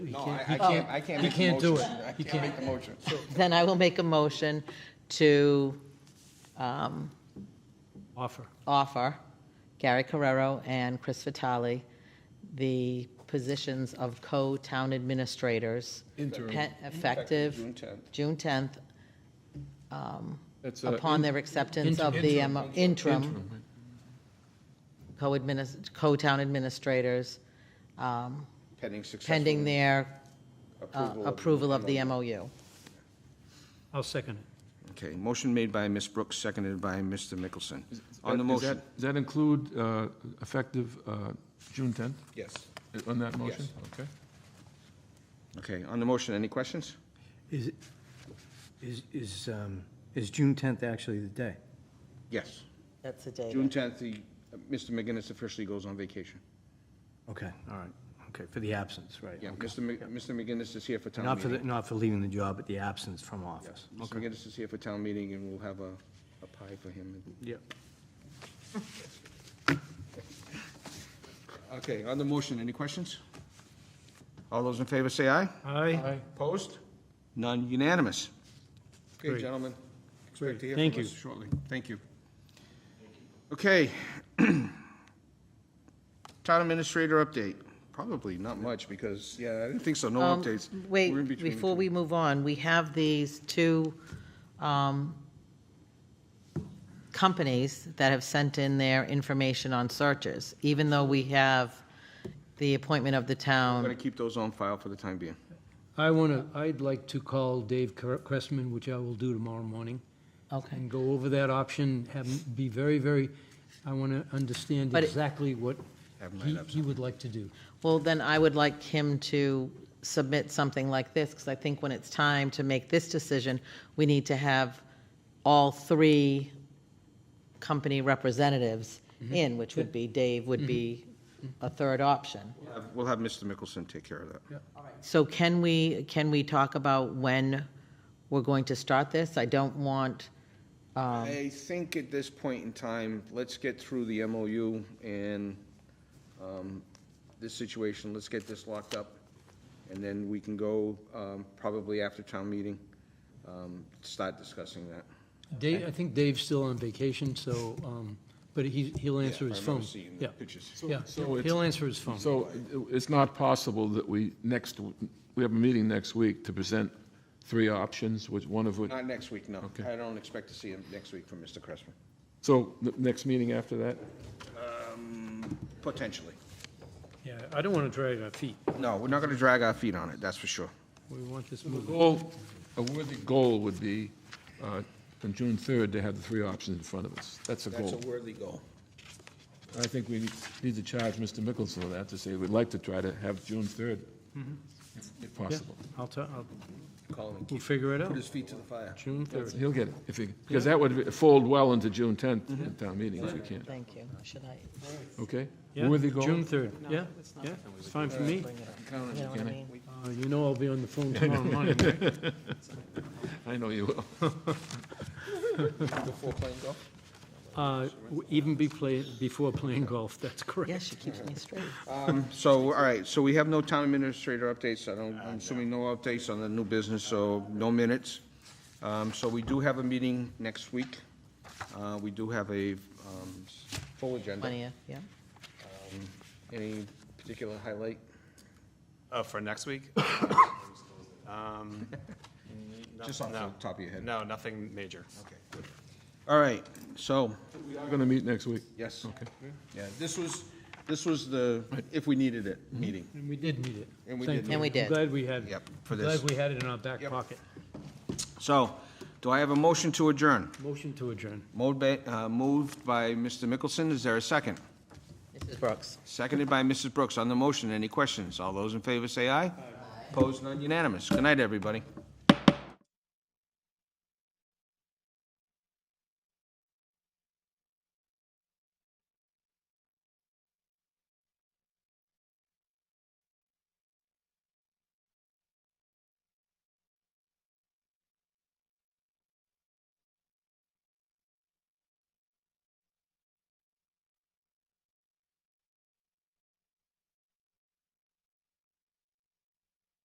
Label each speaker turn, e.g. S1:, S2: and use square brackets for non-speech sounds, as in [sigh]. S1: No,
S2: can't-
S1: I,
S2: he
S1: I can't, I can't
S2: he
S1: make the
S2: can't do
S1: motion.
S2: it.
S1: I
S2: He
S1: can't make
S2: can't.
S1: the motion.
S3: Then I will make a motion to um,
S2: Offer.
S3: offer Gary Carrero and Chris Vitale the positions of co-town administrators.
S2: Interim.
S3: pe- Effective
S1: June tenth.
S3: June 10th,
S4: That's, uh,
S3: upon
S4: in-
S3: their acceptance
S2: Interim.
S3: of the M- interim
S2: Interim,
S3: co-adminis, co-town administrators, um,
S1: Pending successful.
S3: pending their uh,
S1: approval of-
S3: approval of the MOU.
S2: I'll second it.
S1: Okay, motion made by Ms. Brooks, seconded by Mr. Mickelson. On the
S4: that- does that-
S1: motion.
S4: Does that include uh, effective uh, June 10th
S1: Yes.
S4: uh, on that motion? Okay.
S1: Okay, on the motion, any questions?
S5: Is, it- is, is, um, is June 10th actually the day?
S1: Yes.
S3: That's the date.
S1: June tenth, the, Mr. McGinnis officially goes on vacation.
S5: Okay, all right, okay, for the absence, right.
S1: Yeah,
S5: okay.
S1: Mr. Mi- Mr. McGinnis is here for town
S5: Not for, the-
S1: meeting.
S5: not for leaving the job, but the absence from office.
S1: Mr. McGinnis is here for town meeting, and we'll have a, a pie for him.
S5: Yep.
S1: [laughs] Okay, on the motion, any questions? All those in favor say aye.
S2: Aye.
S1: Opposed? None unanimous. Okay,
S2: Great.
S1: gentlemen, expect to hear
S2: Thank
S1: from us
S2: you.
S1: shortly. Thank you. Okay. [clears throat] Town administrator update. Probably not much because, yeah, I didn't think so, no
S3: Um,
S1: updates. We're in
S3: Wait,
S1: between
S3: before
S1: two.
S3: we move on, we have these two um, companies that have sent in their information on searches, even though we have the appointment of the
S1: I'm
S3: town.
S1: going to keep those on file for the time being.
S2: I want to, I'd like to call Dave Cre- Cressman, which I will do tomorrow morning,
S3: Okay,
S2: and go over that option, have, him be very, very, I want to understand
S3: But it-
S2: exactly what
S1: Have him
S2: he,
S1: write up
S2: he would like to do.
S3: well, then I would like him to submit something like this, because I think when it's time to make this decision, we need to have all three company representatives
S1: Mm-hmm.
S3: in, which would be, Dave would be a third option.
S1: We'll have- We'll have Mr. Mickelson take care of that.
S3: So can we, can we talk about when we're going to start this? I don't want,
S1: I think at this point in time, let's get through the MOU and um, this situation, let's get this locked up, and then we can go um, probably after town meeting, um, start discussing that.
S2: Dave, I think Dave's still on vacation, so, um, but he, he'll answer
S1: Yeah,
S2: his
S1: I remember
S2: phone.
S1: seeing the
S2: Yeah,
S1: pictures.
S2: yeah,
S4: So it's-
S2: he'll answer his phone.
S4: So it- it's not possible that we, next, we have a meeting next week to present three options, which, one of which,
S1: Not next week, no.
S4: Okay.
S1: I don't expect to see him next week from Mr. Cressman,
S4: so the next meeting after that?
S1: Um, potentially.
S2: Yeah, I don't want to drag our feet.
S1: No, we're not going to drag our feet on it, that's for sure.
S2: We want this
S4: The
S2: moving.
S4: goal, a worthy goal would be, uh, on June 3rd, to have the three options in front of us. That's a
S1: That's a
S4: goal.
S1: worthy goal.
S4: I think we need to charge Mr. Mickelson of that, to say we'd like to try to have June 3rd,
S2: Mm-hmm.
S4: if- if
S2: Yeah,
S4: possible.
S2: I'll, ta- I'll-
S1: Call him,
S2: we'll figure it
S1: put
S2: out,
S1: his feet to the fire.
S2: June 3rd.
S4: He'll get it, if he, because that would fold well into June 10th at town meeting, if we can.
S3: thank you, should I
S4: Okay?
S2: Yeah,
S4: Worthy goal?
S2: June 3rd, yeah, yeah, it's fine for me.
S3: bring it up? You know what I mean?
S2: Uh, You know I'll be on the phone tomorrow morning, right?
S4: I know you will. [laughs]
S2: Uh, w- Even be play, before playing golf, that's
S3: Yeah,
S2: correct.
S3: she keeps me straight.
S1: So, all right, so we have no town administrator updates, I don't, I'm assuming no updates on the new business, so no minutes. Um, so we do have a meeting next week. Uh, we do have a, um, full agenda.
S3: Twentieth, yeah.
S1: Any particular highlight?
S6: Oh, for next week?
S1: [coughs]
S6: Um,
S1: Just off the
S6: no.
S1: top of your head.
S6: No, nothing major.
S1: Okay. All right, so,
S4: We are going to meet next week.
S1: yes.
S4: Okay.
S1: Yeah, this was, this was the, if we needed it, meeting.
S2: And we did meet it.
S1: And we did
S2: Thankfully.
S3: And we did.
S2: I'm glad we had,
S1: Yep, for
S2: I'm
S1: this.
S2: glad we had it in our back
S1: Yep.
S2: pocket.
S1: So, do I have a motion to adjourn?
S2: Motion to adjourn.
S1: Moved by, uh, moved by Mr. Mickelson, is there a second?
S3: Mrs. Brooks.
S1: Seconded by Mrs. Brooks. On the motion, any questions? All those in favor say aye. Opposed, none unanimous. Good night, everybody.